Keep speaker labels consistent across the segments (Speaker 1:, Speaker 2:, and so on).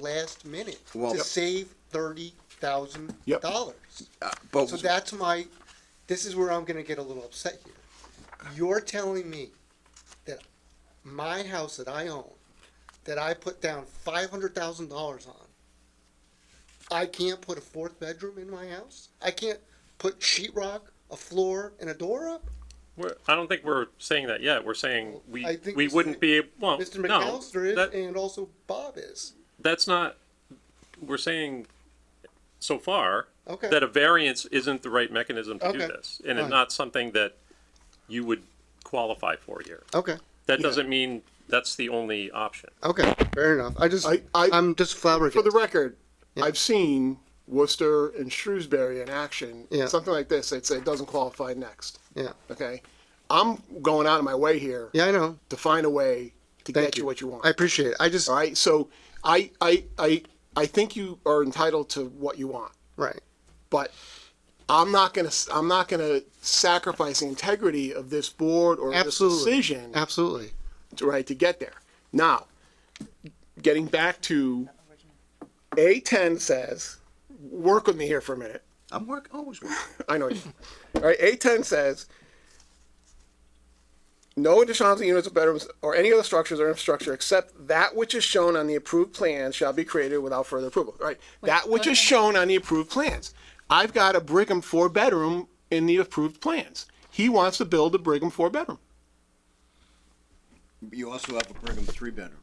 Speaker 1: last minute
Speaker 2: Well-
Speaker 1: to save thirty thousand
Speaker 3: Yep. Oh,
Speaker 1: dollars.
Speaker 2: Uh, But,
Speaker 1: So that's my, this is where I'm gonna get a little upset here. You're telling me that my house that I own, that I put down five hundred thousand dollars on, I can't put a fourth bedroom in my house? I can't put sheetrock, a floor, and a door up?
Speaker 4: We're, I don't think we're saying that yet. We're saying we
Speaker 1: I think
Speaker 4: we
Speaker 1: Mr.
Speaker 4: wouldn't be ab- well.
Speaker 1: Mr.
Speaker 4: no,
Speaker 1: McAllister
Speaker 4: that-
Speaker 1: is, and also Bob is.
Speaker 4: that's not. We're saying so far
Speaker 1: Okay.
Speaker 4: that a variance isn't the right mechanism to do
Speaker 1: Okay.
Speaker 4: this, and it's
Speaker 1: Fine.
Speaker 4: not something that you would qualify for here.
Speaker 1: Okay,
Speaker 4: That doesn't mean that's the only option.
Speaker 1: okay, fair enough. I just,
Speaker 3: I- I-
Speaker 1: I'm just flower.
Speaker 3: For the record,
Speaker 1: Yeah.
Speaker 3: I've seen Worcester and Shrewsbury in action.
Speaker 1: Yeah.
Speaker 3: Something like this, they'd say it doesn't qualify next.
Speaker 1: Yeah,
Speaker 3: Okay? I'm going out of my way here
Speaker 1: yeah, I know.
Speaker 3: to find a way to
Speaker 1: Thank
Speaker 3: get you.
Speaker 1: you.
Speaker 3: what you want.
Speaker 1: I appreciate it. I just,
Speaker 3: All right? So I, I, I, I think you are entitled to what you want,
Speaker 1: right,
Speaker 3: but I'm not gonna, s- I'm not gonna sacrifice the integrity of this board or
Speaker 1: Absolutely.
Speaker 3: this decision
Speaker 1: absolutely.
Speaker 3: to- right to get there. Now, getting back to A10 says, work with me here for a minute.
Speaker 2: I'm work, always working.
Speaker 3: I know. you. All right, A10 says no additional housing units or bedrooms or any other structures or infrastructure except that which is shown on the approved plans shall be created without further approval. All Right, that which is shown on the approved plans. I've got a Brigham four bedroom in the approved plans. He wants to build a Brigham four bedroom.
Speaker 2: You also have a Brigham three-bedroom.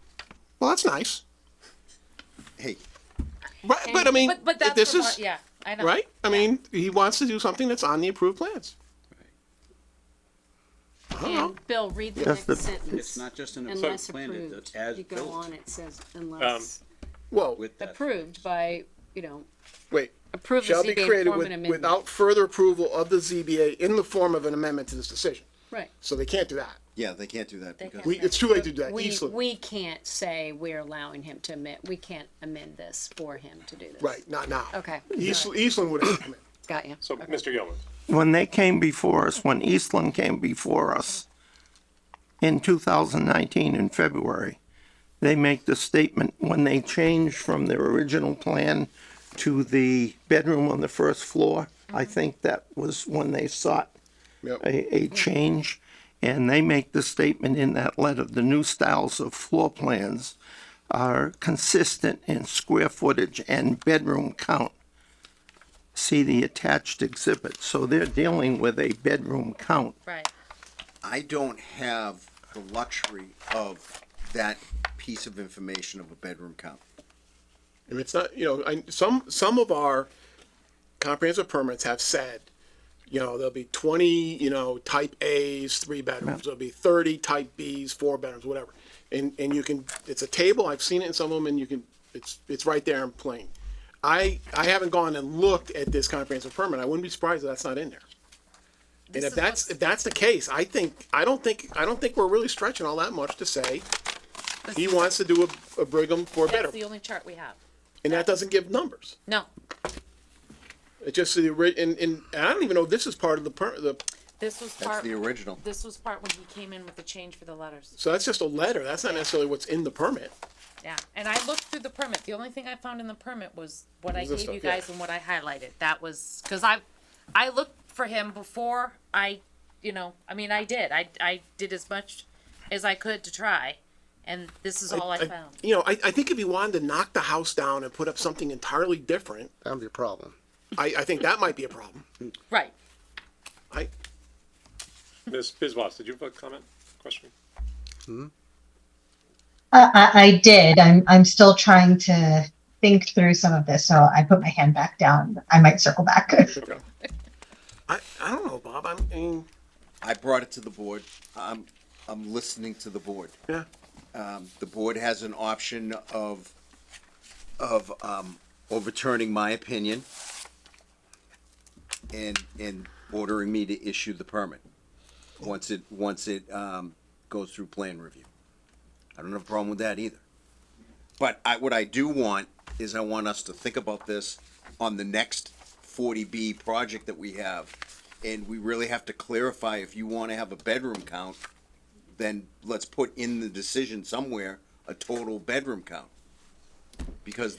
Speaker 3: Well, that's nice.
Speaker 2: Hey,
Speaker 3: Right, but I mean,
Speaker 5: but, but that's
Speaker 3: this
Speaker 5: the
Speaker 3: is
Speaker 5: part- yeah, I know.
Speaker 3: right. I mean, he wants to do something that's on the approved plans. I don't know.
Speaker 6: And Bill, read the next sentence.
Speaker 2: it's not just an approved
Speaker 6: Unless
Speaker 2: plan, it-
Speaker 6: approved,
Speaker 2: it's as
Speaker 6: you go on,
Speaker 2: built
Speaker 6: it says unless
Speaker 3: Whoa,
Speaker 2: with that.
Speaker 6: approved by, you know,
Speaker 3: wait.
Speaker 6: approved
Speaker 3: Um,
Speaker 6: the
Speaker 3: shall be
Speaker 6: ZBA
Speaker 3: created
Speaker 6: form
Speaker 3: with,
Speaker 6: and amendment.
Speaker 3: without further approval of the ZBA in the form of an amendment to this decision.
Speaker 6: Right.
Speaker 3: So they can't do that.
Speaker 2: Yeah, they can't do that because.
Speaker 3: We, it's too late to do that
Speaker 6: We,
Speaker 3: easily.
Speaker 6: we can't say we're allowing him to amend, we can't amend this for him to do this.
Speaker 3: Right, not now.
Speaker 6: Okay.
Speaker 3: East, Eastland would have come in.
Speaker 6: Got you.
Speaker 4: So, Mr. Yeoman,
Speaker 7: when they came before us, when Eastland came before us in 2019 in February, they make the statement when they changed from their original plan to the bedroom on the first floor. I think that was when they sought
Speaker 3: Yep.
Speaker 7: a, a change. And they make the statement in that letter, the new styles of floor plans are consistent in square footage and bedroom count. See the attached exhibit. So they're dealing with a bedroom count.
Speaker 6: Right.
Speaker 2: I don't have the luxury of that piece of information of a bedroom count.
Speaker 3: And it's not, you know, I, some, some of our comprehensive permits have said, you know, there'll be twenty, you know, type As, three bedrooms, there'll be thirty type Bs, four bedrooms, whatever. And, and you can, it's a table, I've seen it in some of them, and you can, it's, it's right there in plain. I, I haven't gone and looked at this comprehensive permit, I wouldn't be surprised if that's not in there. And if that's, if that's the case, I think, I don't think, I don't think we're really stretching all that much to say he wants to do a, a Brigham
Speaker 5: That's
Speaker 3: four-bedroom,
Speaker 5: the only chart we have.
Speaker 3: and that doesn't give numbers.
Speaker 5: No,
Speaker 3: It just the ori- and, and and I don't even know if this is part of the per, the
Speaker 5: this was
Speaker 2: That's
Speaker 5: part,
Speaker 2: the original.
Speaker 5: this was part when he came in with the change for the letters.
Speaker 3: so that's just a letter. That's not necessarily what's in the permit.
Speaker 5: Yeah, and I looked through the permit. The only thing I found in the permit was what I
Speaker 3: Was this
Speaker 5: gave you
Speaker 3: stuff, yeah.
Speaker 5: guys and what I highlighted. That was, cause I, I looked for him before I, you know, I mean, I did. I, I did as much as I could to try, and this is all I found.
Speaker 3: You know, I, I think if he wanted to knock the house down and put up something entirely different,
Speaker 1: That would be a problem.
Speaker 3: I, I think that might be a problem.
Speaker 5: Right.
Speaker 3: I
Speaker 4: Ms. Bizwas, did you have a comment, question?
Speaker 8: Uh, I, I did. I'm, I'm still trying to think through some of this, so I put my hand back down. I might circle back.
Speaker 3: I, I don't know, Bob. I'm- I mean,
Speaker 2: I brought it to the board. I'm, I'm listening to the board. Um,
Speaker 3: yeah.
Speaker 2: The board has an option of, of, um, overturning my opinion and, and ordering me to issue the permit, once it, once it, um, goes through plan review. I don't have a problem with that either. But I, what I do want is I want us to think about this on the next forty B project that we have. And we really have to clarify if you wanna have a bedroom count, then let's put in the decision somewhere a total bedroom count. because